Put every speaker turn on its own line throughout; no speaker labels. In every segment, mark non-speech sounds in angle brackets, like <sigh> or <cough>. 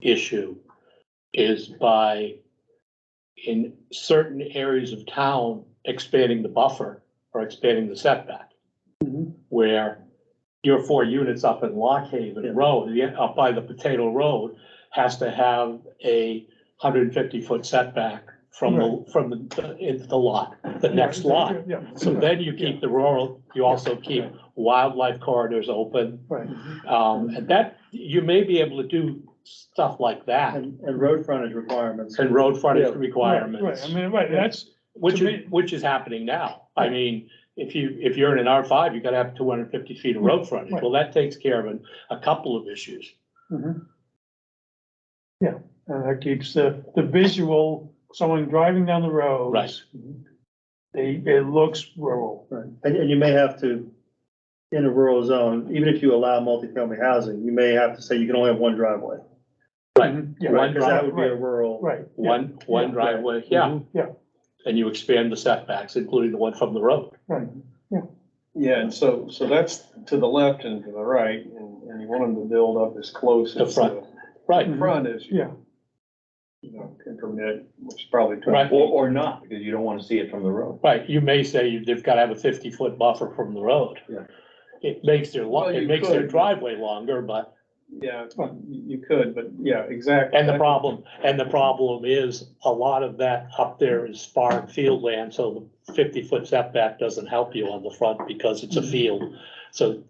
issue is by in certain areas of town, expanding the buffer or expanding the setback.
Mhm.
Where your four units up in Lock
Yeah.
Haven Road, the- up by the Potato Road, has to have a hundred and fifty foot setback from the, from the, in the lot, the next lot.
Yeah.
So then you keep the rural, you also keep wildlife corridors open.
Right,
Um, and that, you may be able to do stuff like that
and, and road frontage requirements.
and road frontage
Yeah.
Right,
requirements,
I mean, right, that's,
which
to
is,
me-
which is happening now. I mean, if you, if you're in an R five, you gotta have two hundred and fifty feet of road frontage.
right.
Well, that takes care of an- a couple of issues.
uh, that keeps the, the visual, someone driving down the road.
Right.
They, it looks rural.
Right, and, and you may have to, in a rural zone, even if you allow multifamily housing, you may have to say you can only have one driveway.
Right.
Yeah,
One
Right, cause that would be a
driveway.
rural.
Right. yeah,
One, one
yeah.
driveway, yeah.
Mhm, yeah.
And you expand the setbacks, including the one from the road.
Right,
Yeah, and so, so that's to the left and to the right, and, and you want them to build up as close
The
as
front.
the
Right,
Mm-hmm.
Mhm.
front is, you
yeah,
know, can permit, which is probably.
Right.
Or, or not, because you don't wanna see it from the road.
right. You may say you- they've gotta have a fifty foot buffer from the road.
Yeah.
It makes their, lo-
Well,
it
you
makes their
could.
driveway longer, but
Yeah, you, you could, but yeah, exactly.
And the problem, and the problem is, a lot of that up there is farm field land, so the fifty-foot setback doesn't help you on the front because it's a field. So,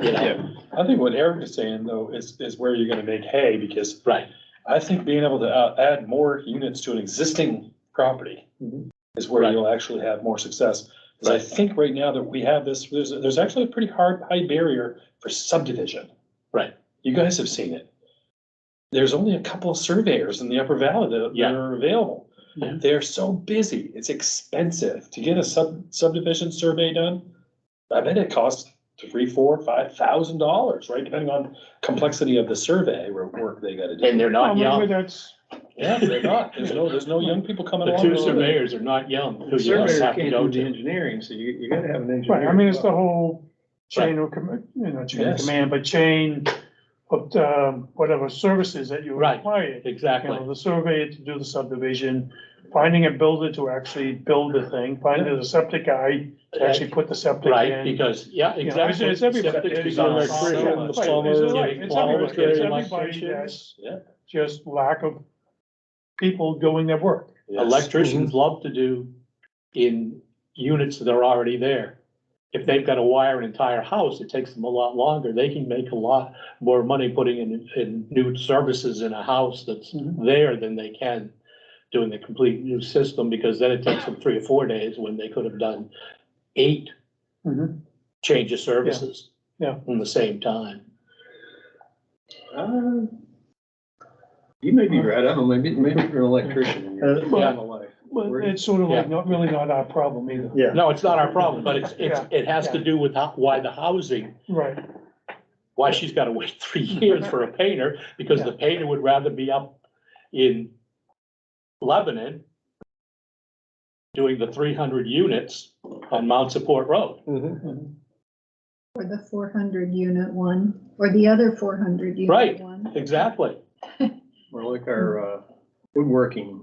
you know,
Yeah,
I think what Eric is saying though is, is where you're gonna make hay because
right,
I think being able to uh, add more units to an existing property
Mhm.
is where
Mm-hmm. Right.
you'll actually have more success. Because I
Right.
think right now that we have this, there's, there's actually a pretty hard, high barrier for subdivision.
Right.
You guys have seen it. There's only a couple of surveyors in the upper valley that
Yeah.
that are available.
Yeah.
They're so busy. It's expensive to get a sub subdivision survey done. I bet it costs three, four, five thousand dollars, right? Depending on complexity of the survey or work they gotta do.
and they're
I
not
mean, but
young.
that's,
Yeah, they're not. There's no, there's no young people coming
<laughs> The
along.
two surveyors are not young, who
the
you
surveyor
just have to
can't
go
do the
to.
engineering, so you, you gotta have an
right,
engineer.
I mean, it's
as
the
well.
whole chain of, command, you know, chain of
Yes.
command, but chain of, um, whatever services that you
Right.
require. You
Exactly,
know, the survey to do the subdivision, finding a builder to actually build the thing, finding the septic guy to actually put the septic in.
right, because, yeah,
You know, it's-
exactly.
It's everybody.
Septic
It's
design,
electrician,
so
right,
much.
it's
plumber,
everybody-
getting
it's everybody-
plumbers, getting
it's everybody
electricians.
that's
Yeah.
Just lack of people doing their work.
Electricians love to do in units that are already there. If they've got to wire an entire house, it takes them a lot longer. They can make a lot more money putting in, in new services in a house that's
Mhm.
there than they can doing the complete new system, because then it takes them three or four days when they could have done eight
Mm-hmm.
Mhm.
change of services.
Yeah.
In the same time.
Uh, You may be right, I don't know, maybe, maybe you're an electrician in your
Uh,
normal life.
But it's sort of like not, really not our problem either.
Yeah,
No, it's not our problem, but it's, it's, it has to
Yeah.
do with how, why the housing
Right,
why she's gotta wait three <laughs> years for a painter, because the painter would rather be up in Lebanon doing the three hundred units on Mount Support Road.
Or the four hundred unit one, or the other four hundred
Right.
unit one.
Exactly.
Or like our, uh, woodworking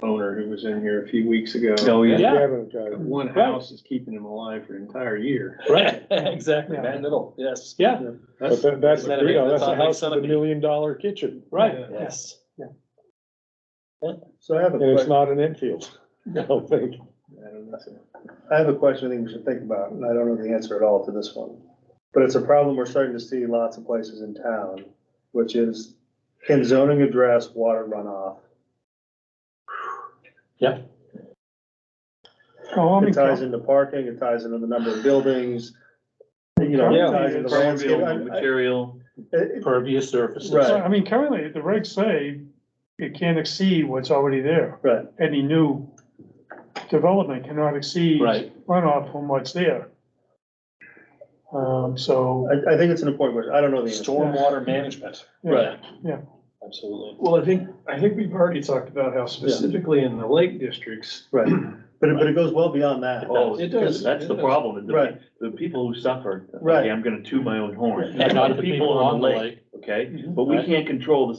owner who was in here a few weeks ago. Uh,
Oh, yeah.
Yeah.
One house is keeping him alive for an entire year.
Right.
<laughs> Exactly,
Yeah.
man, little, yes.
Yeah,
That's,
That's, you know, that's a house
a million dollar kitchen,
right.
Yes.
so I have a
and it's
question,
not an infield, I don't think.
I don't know.
I have a question I think we should think about, and I don't know the answer at all to this one. But it's a problem we're starting to see lots of places in town, which is, can zoning address water runoff?
oh, I mean,
It ties into parking, it ties into the number of buildings, you know,
Yeah.
it ties into landscape. I- I-
Material.
it-
Pervious surfaces.
Right.
I mean, currently, the regs say it can't exceed what's already there.
Right.
Any new development cannot exceed
Right.
runoff from what's there. Um, so,
I, I think it's an important question. I don't know the answer.
Stormwater management,
yeah,
absolutely.
Well, I think, I think we've already talked about how specifically in the lake districts.
Right. But it, but it goes well beyond that.
Oh,
It does.
That's the problem, is
Right.
the, the people who suffer,
Right.
okay, I'm gonna toot my own horn.
And not
The people on the lake, okay? But we
Right.
can't control the